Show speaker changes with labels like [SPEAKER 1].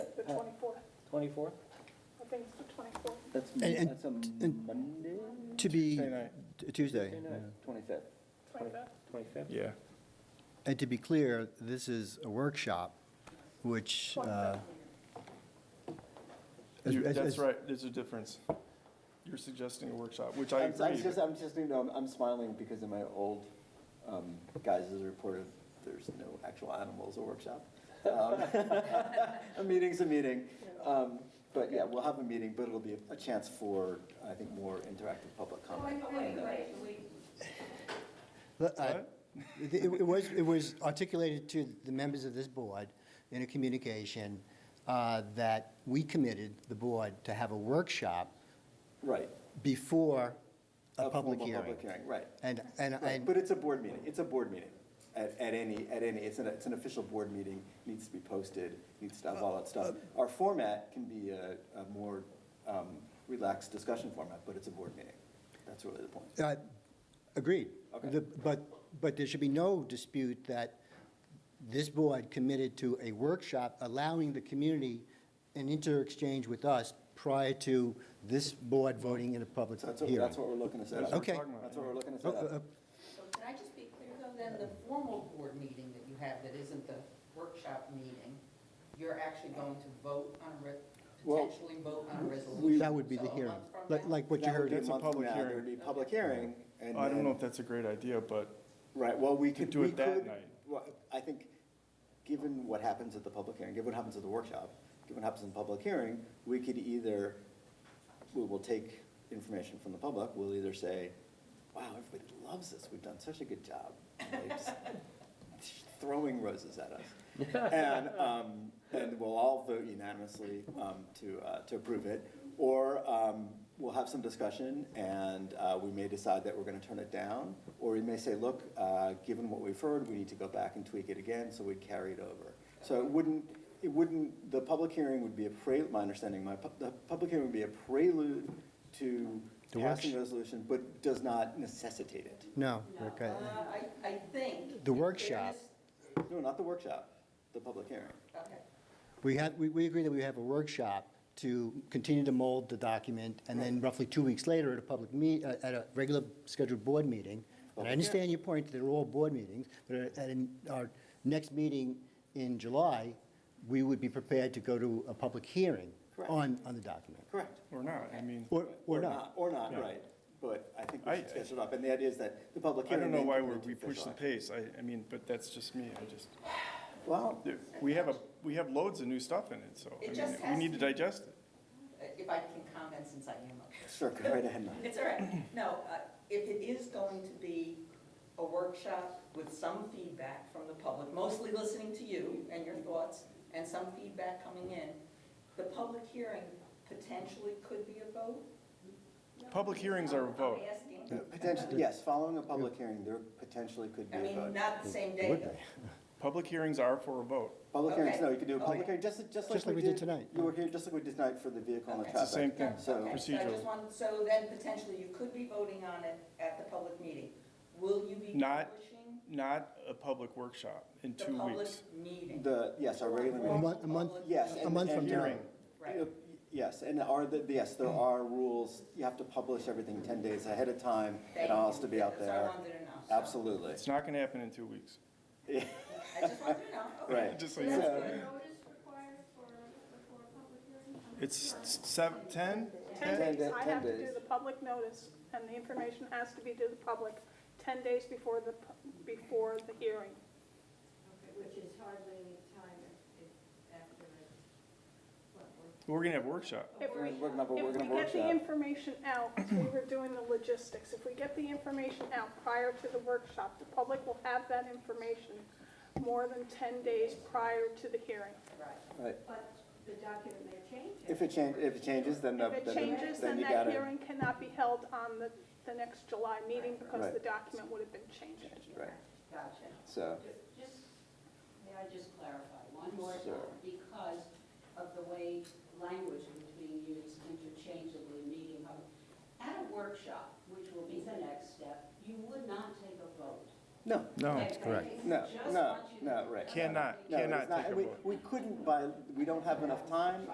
[SPEAKER 1] 24th,
[SPEAKER 2] 24th?
[SPEAKER 1] I think it's the 24th.
[SPEAKER 2] That's,
[SPEAKER 3] And- and-
[SPEAKER 2] that's a
[SPEAKER 3] and-
[SPEAKER 2] Monday?
[SPEAKER 3] To be
[SPEAKER 4] Tuesday night.
[SPEAKER 3] t- Tuesday.
[SPEAKER 2] Twenty-fifth.
[SPEAKER 1] 25th.
[SPEAKER 2] 25th?
[SPEAKER 4] Yeah.
[SPEAKER 3] And to be clear, this is a workshop, which. uh, as-
[SPEAKER 4] You-
[SPEAKER 3] as-
[SPEAKER 4] That's
[SPEAKER 3] as-
[SPEAKER 4] right, there's a difference. You're suggesting a workshop, which I
[SPEAKER 2] I'm, I'm
[SPEAKER 4] agree.
[SPEAKER 2] just, I'm just, you know, I'm- I'm smiling because in my old, um, guises report of, there's no actual animals or workshop. Um, A meeting's a meeting. Um, but yeah, we'll have a meeting, but it'll be a chance for, I think, more interactive public comment.
[SPEAKER 5] Oh, Wait, wait, wait.
[SPEAKER 3] But, uh, It it was, it was articulated to the members of this board in a communication uh, that we committed, the board, to have a workshop
[SPEAKER 2] Right.
[SPEAKER 3] before a public
[SPEAKER 2] formal
[SPEAKER 3] hearing.
[SPEAKER 2] Public hearing, right.
[SPEAKER 3] And, and,
[SPEAKER 2] Right,
[SPEAKER 3] and.
[SPEAKER 2] But it's a board meeting, it's a board meeting, at, at any, at any, it's an, it's an official board meeting, needs to be posted, needs to have all that
[SPEAKER 3] Uh,
[SPEAKER 2] stuff. Our format can be a, a more um, relaxed discussion format, but it's a board meeting, that's really the point.
[SPEAKER 3] Uh, Agreed.
[SPEAKER 2] Okay.
[SPEAKER 3] The- But, but there should be no dispute that this board committed to a workshop allowing the community an inter-exchange with us prior to this board voting in a public
[SPEAKER 2] So that's, what-
[SPEAKER 3] hearing.
[SPEAKER 2] that's what we're looking to set
[SPEAKER 4] That's
[SPEAKER 2] up.
[SPEAKER 4] what we're
[SPEAKER 3] Okay.
[SPEAKER 4] talking about.
[SPEAKER 2] That's what we're looking to
[SPEAKER 3] Oh,
[SPEAKER 2] set
[SPEAKER 3] uh,
[SPEAKER 2] up.
[SPEAKER 5] So can I just be clear though, then the formal board meeting that you have that isn't the workshop meeting, you're actually going to vote on, re-
[SPEAKER 2] Well,
[SPEAKER 5] potentially vote on a resolution?
[SPEAKER 3] That would be the
[SPEAKER 5] So a
[SPEAKER 3] hearing,
[SPEAKER 5] month from
[SPEAKER 3] like
[SPEAKER 5] now?
[SPEAKER 3] like what you
[SPEAKER 2] That would
[SPEAKER 3] heard.
[SPEAKER 2] be
[SPEAKER 4] It's a
[SPEAKER 2] month from
[SPEAKER 4] public
[SPEAKER 2] now,
[SPEAKER 4] hearing.
[SPEAKER 2] There would be a public hearing, and
[SPEAKER 4] I don't know if
[SPEAKER 2] then-
[SPEAKER 4] that's a great idea, but
[SPEAKER 2] Right, well, we
[SPEAKER 4] Could
[SPEAKER 2] could,
[SPEAKER 4] do
[SPEAKER 2] we
[SPEAKER 4] it that
[SPEAKER 2] could,
[SPEAKER 4] night.
[SPEAKER 2] well, I think, given what happens at the public hearing, given what happens at the workshop, given what happens in the public hearing, we could either, we will take information from the public, we'll either say, wow, everybody loves this, we've done such a good job, like, just throwing roses at us. And, um, and we'll all vote unanimously, um, to, uh, to approve it. Or, um, we'll have some discussion and, uh, we may decide that we're gonna turn it down. Or we may say, look, uh, given what we've heard, we need to go back and tweak it again, so we'd carry it over. So it wouldn't, it wouldn't, the public hearing would be a pre, my understanding, my, pub- the public hearing would be a prelude to
[SPEAKER 3] The
[SPEAKER 2] passing
[SPEAKER 3] worksh-
[SPEAKER 2] the resolution, but does not necessitate it.
[SPEAKER 3] No,
[SPEAKER 5] No,
[SPEAKER 3] okay.
[SPEAKER 5] uh, I, I think.
[SPEAKER 3] The
[SPEAKER 5] in
[SPEAKER 3] workshop.
[SPEAKER 5] fairness-
[SPEAKER 2] No, not the workshop, the public hearing.
[SPEAKER 5] Okay.
[SPEAKER 3] We had, we, we agree that we have a workshop to continue to mold the document, and then roughly two weeks later at a public meet, uh, at a regular scheduled board meeting. And I understand your point, that they're all board meetings, but at an- our next meeting in July, we would be prepared to go to a public hearing
[SPEAKER 2] Correct.
[SPEAKER 3] on, on the document.
[SPEAKER 2] Correct.
[SPEAKER 4] or not, I mean,
[SPEAKER 3] Or, or not.
[SPEAKER 2] Or not,
[SPEAKER 4] Yeah.
[SPEAKER 2] right. But I think we
[SPEAKER 4] I-
[SPEAKER 2] should sketch it up, and the idea is that the public
[SPEAKER 4] I
[SPEAKER 2] hearing.
[SPEAKER 4] don't know
[SPEAKER 2] may
[SPEAKER 4] why
[SPEAKER 2] come
[SPEAKER 4] we're,
[SPEAKER 2] into
[SPEAKER 4] we push the
[SPEAKER 2] effect.
[SPEAKER 4] pace. I, I mean, but that's just me, I just,
[SPEAKER 2] Well,
[SPEAKER 4] there- we have a, we have loads of new stuff in it, so,
[SPEAKER 5] It
[SPEAKER 4] I
[SPEAKER 5] just
[SPEAKER 4] mean, we
[SPEAKER 5] has
[SPEAKER 4] need to
[SPEAKER 5] to-
[SPEAKER 4] digest it.
[SPEAKER 5] Uh, If I can comment since I am up here.
[SPEAKER 2] sure, go right ahead. Mike.
[SPEAKER 5] It's all right. No, uh, if it is going to be a workshop with some feedback from the public, mostly listening to you and your thoughts, and some feedback coming in, the public hearing potentially could be a vote?
[SPEAKER 4] Public hearings are a vote.
[SPEAKER 5] I'm asking.
[SPEAKER 2] Potentially, yes, following a public hearing, there potentially could be
[SPEAKER 5] I
[SPEAKER 2] a
[SPEAKER 5] mean,
[SPEAKER 2] vote.
[SPEAKER 5] not the same day, though.
[SPEAKER 4] Public hearings are for a vote.
[SPEAKER 2] Public hearings,
[SPEAKER 5] Okay.
[SPEAKER 2] no, you could do a public
[SPEAKER 5] Okay.
[SPEAKER 2] hearing, just, just like we did.
[SPEAKER 3] tonight.
[SPEAKER 2] You were here, just like we did tonight for the vehicle and the
[SPEAKER 5] Okay.
[SPEAKER 2] traffic.
[SPEAKER 5] It's
[SPEAKER 4] the same thing.
[SPEAKER 2] So-
[SPEAKER 5] Okay, so I
[SPEAKER 4] procedural.
[SPEAKER 5] just want, so then potentially you could be voting on it at the public meeting. Will you be
[SPEAKER 4] Not-
[SPEAKER 5] pushing
[SPEAKER 4] Not a public workshop in
[SPEAKER 5] the
[SPEAKER 4] two
[SPEAKER 5] public
[SPEAKER 4] weeks.
[SPEAKER 5] meeting?
[SPEAKER 2] The, yes, our regular
[SPEAKER 3] A
[SPEAKER 2] meeting.
[SPEAKER 3] month, a month,
[SPEAKER 2] Yes.
[SPEAKER 3] a
[SPEAKER 2] and-
[SPEAKER 3] month
[SPEAKER 2] and-
[SPEAKER 3] from tonight.
[SPEAKER 5] Right.
[SPEAKER 2] Yes, and are, the yes, there are rules, you have to publish everything 10 days ahead of time,
[SPEAKER 5] Thank
[SPEAKER 2] it all has
[SPEAKER 5] you.
[SPEAKER 2] to be out
[SPEAKER 5] That's what I
[SPEAKER 2] there.
[SPEAKER 5] wanted to know. So
[SPEAKER 2] Absolutely.
[SPEAKER 4] It's not gonna happen in two weeks.
[SPEAKER 5] I just wanted to know, okay.
[SPEAKER 2] Right.
[SPEAKER 4] Just so
[SPEAKER 2] So-
[SPEAKER 4] you
[SPEAKER 5] That's
[SPEAKER 4] know.
[SPEAKER 5] good.
[SPEAKER 6] notice required for, before a public hearing? I'm not
[SPEAKER 4] It's
[SPEAKER 6] sure.
[SPEAKER 4] seven, ten?
[SPEAKER 1] 10 days,
[SPEAKER 2] days.
[SPEAKER 1] I have
[SPEAKER 2] 10
[SPEAKER 1] to do
[SPEAKER 2] days.
[SPEAKER 1] the public notice, and the information has to be to the public 10 days before the, pu- before the hearing.
[SPEAKER 7] Okay, Which is hardly any time if, if after it's, what, we're
[SPEAKER 4] We're gonna have a workshop.
[SPEAKER 1] If
[SPEAKER 2] We're
[SPEAKER 1] we,
[SPEAKER 2] gonna have a- we're
[SPEAKER 1] if
[SPEAKER 2] gonna
[SPEAKER 1] we get the
[SPEAKER 2] workshop.
[SPEAKER 1] information out, as we were doing the logistics, if we get the information out prior to the workshop, the public will have that information more than 10 days prior to the hearing.
[SPEAKER 5] Right.
[SPEAKER 2] Right.
[SPEAKER 7] But the document may change.
[SPEAKER 2] If it change, if it changes, then, uh,
[SPEAKER 1] If
[SPEAKER 2] then
[SPEAKER 1] it changes,
[SPEAKER 2] then
[SPEAKER 1] then
[SPEAKER 2] you
[SPEAKER 1] that
[SPEAKER 2] gotta-
[SPEAKER 1] hearing cannot be held on the, the next July meeting because
[SPEAKER 2] Right.
[SPEAKER 1] the document would have been changed.
[SPEAKER 2] Right,
[SPEAKER 5] Gotcha.
[SPEAKER 2] so,
[SPEAKER 8] Ju- Just, may I just clarify one more
[SPEAKER 2] Sure.
[SPEAKER 8] time? Because of the way language was being used interchangeably, meeting, hub- at a workshop, which will be the next step, you would not take a vote.
[SPEAKER 2] No,
[SPEAKER 4] No,
[SPEAKER 3] correct.
[SPEAKER 2] no, no, no, right.
[SPEAKER 4] cannot,
[SPEAKER 2] No, it's
[SPEAKER 4] cannot
[SPEAKER 2] not-
[SPEAKER 4] take a
[SPEAKER 2] and we-
[SPEAKER 4] vote.
[SPEAKER 2] We couldn't by, we don't have enough time